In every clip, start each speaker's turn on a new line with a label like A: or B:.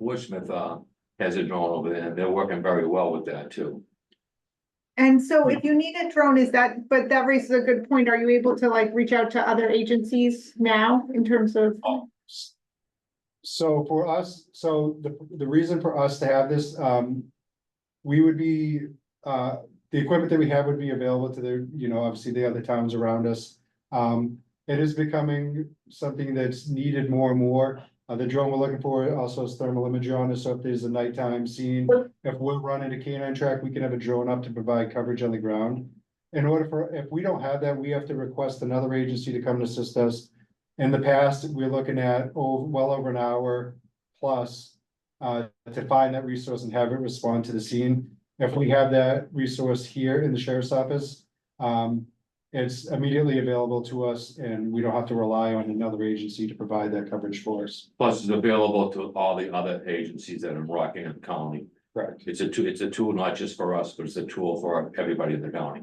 A: Portsmouth, uh, has a drone over there, and they're working very well with that too.
B: And so if you need a drone, is that, but that raises a good point. Are you able to like reach out to other agencies now in terms of?
C: Oh.
D: So for us, so the, the reason for us to have this, um. We would be, uh, the equipment that we have would be available to the, you know, obviously the other towns around us. Um, it is becoming something that's needed more and more. Uh, the drone we're looking for also has thermal image on it, so if there's a nighttime scene. If we're running a canine track, we can have a drone up to provide coverage on the ground. In order for, if we don't have that, we have to request another agency to come and assist us. In the past, we're looking at, oh, well over an hour plus. Uh, to find that resource and have it respond to the scene. If we have that resource here in the sheriff's office. Um, it's immediately available to us and we don't have to rely on another agency to provide that coverage for us.
A: Plus, it's available to all the other agencies that are in Rockingham County.
D: Correct.
A: It's a tool, it's a tool not just for us, but it's a tool for everybody in the county.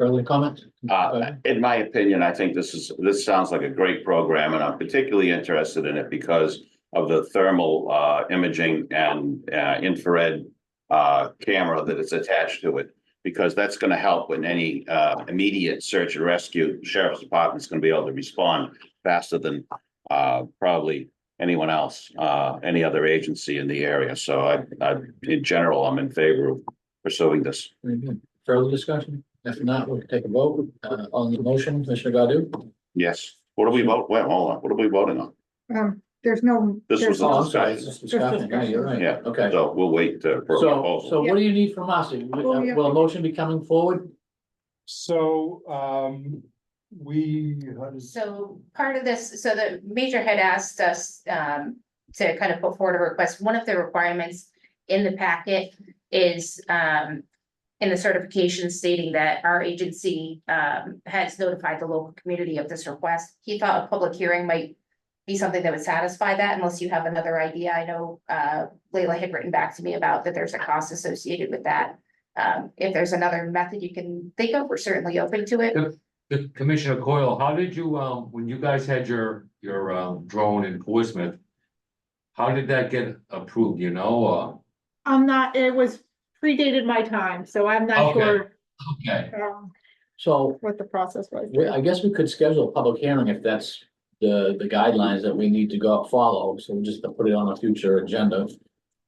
E: Early comment?
C: Uh, in my opinion, I think this is, this sounds like a great program and I'm particularly interested in it because of the thermal, uh, imaging and, uh, infrared, uh, camera that is attached to it. Because that's gonna help when any, uh, immediate search and rescue, sheriff's department's gonna be able to respond faster than, uh, probably anyone else, uh, any other agency in the area. So I, I, in general, I'm in favor of pursuing this.
E: Very good. Further discussion? If not, we'll take a vote uh, on the motion. Commissioner Godu?
C: Yes. What do we vote? Wait, hold on. What are we voting on?
B: Um, there's no.
C: This was
B: there's-
C: a-
E: Oh, I'm sorry, it's just discussion. Yeah, you're right.
C: Yeah.
E: Okay.
C: So we'll wait uh, for a
E: So,
C: proposal.
E: so what do you need from us? Will a motion be coming forward?
D: So, um, we, how does-
F: So part of this, so the major had asked us um to kind of put forward a request. One of the requirements in the packet is um in the certification stating that our agency um has notified the local community of this request. He thought a public hearing might be something that would satisfy that unless you have another idea. I know uh Leila had written back to me about that there's a cost associated with that. Um, if there's another method you can think of, we're certainly open to it.
A: The Commissioner Coyle, how did you, um, when you guys had your, your, um, drone in Portsmouth? How did that get approved, you know, or?
B: I'm not, it was predated my time, so I'm not
A: Okay.
B: sure
A: Okay.
B: um,
E: So
B: what the process was.
E: we- I guess we could schedule a public hearing if that's the, the guidelines that we need to go follow. So we'll just put it on a future agenda.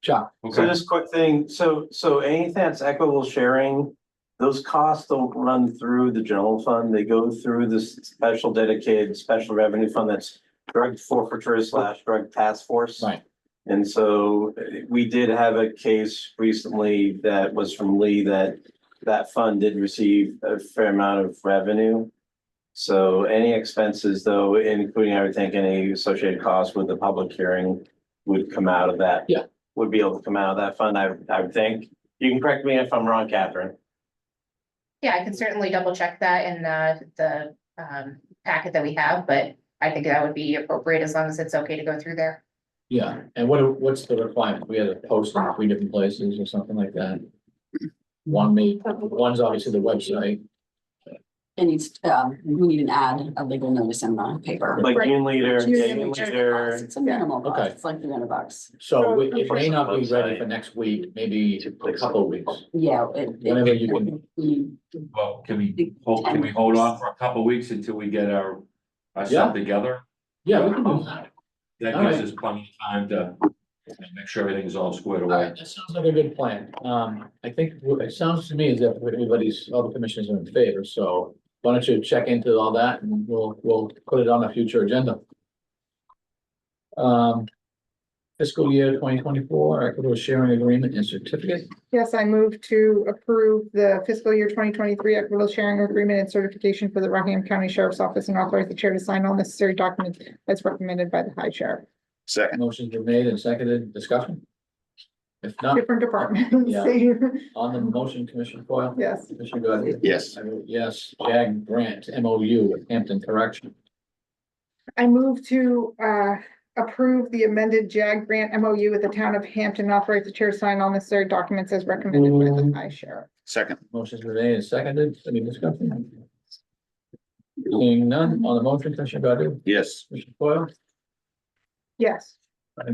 E: Chuck,
G: So just quick thing, so, so anything that's equitable sharing, those costs don't run through the general fund, they go through this special dedicated, special revenue fund that's drug forfeiture slash drug task force.
E: Right.
G: And so eh, we did have a case recently that was from Lee that that fund did receive a fair amount of revenue. So any expenses though, including I would think any associated costs with the public hearing would come out of that.
E: Yeah.
G: Would be able to come out of that fund, I, I would think. You can correct me if I'm wrong, Catherine.
F: Yeah, I can certainly double check that in the, the, um, packet that we have, but I think that would be appropriate as long as it's okay to go through there.
E: yeah. And what, what's the requirement? We had to post in three different places or something like that. One may, one's obviously the website.
H: It needs, um, we need an ad, a legal notice in the paper.
G: Like
B: Right.
G: union leader,
B: Union
G: union
H: It's a
G: leader.
H: It's a minimal
E: Okay.
H: cost, it's like three hundred bucks.
E: So we- it may not be ready for next week, maybe a couple of weeks.
H: Yeah. it- it-
E: Whenever you can-
H: You-
A: Well, can we, hold- can we hold off for a couple weeks until we get our, our
E: Yeah.
A: stuff together?
E: Yeah, we can do that.
A: That
E: All
A: gives
E: right.
A: us plenty of time to make sure everything's all squared
E: All
A: away.
E: right, that sounds like a good plan. Um, I think what it sounds to me is that everybody's, all the commissioners are in favor, so why don't you check into all that and we'll, we'll put it on a future agenda. Um, fiscal year twenty twenty-four, equitable sharing agreement and certificate.
B: Yes, I move to approve the fiscal year twenty twenty-three equitable sharing agreement and certification for the Rockingham County Sheriff's Office and authorize the chair to sign all necessary documents as recommended by the high sheriff.
C: Second,
E: Motion's been made and seconded, discussion? If
C: Uh,
E: not,
B: Different departments.
E: on the motion, Commissioner Coyle?
B: Yes,
E: Commissioner Godu?
C: yes,
E: I vote Yes, JAG grant MOU with Hampton Correction.
B: I move to uh approve the amended JAG grant MOU with the town of Hampton, authorize the chair to sign all necessary documents as recommended by the high sheriff.
C: second,
E: Motion's been made and seconded, any discussion? Seeing none, on the motion, Commissioner Godu?
C: yes,
E: Commissioner Foil?
B: Yes,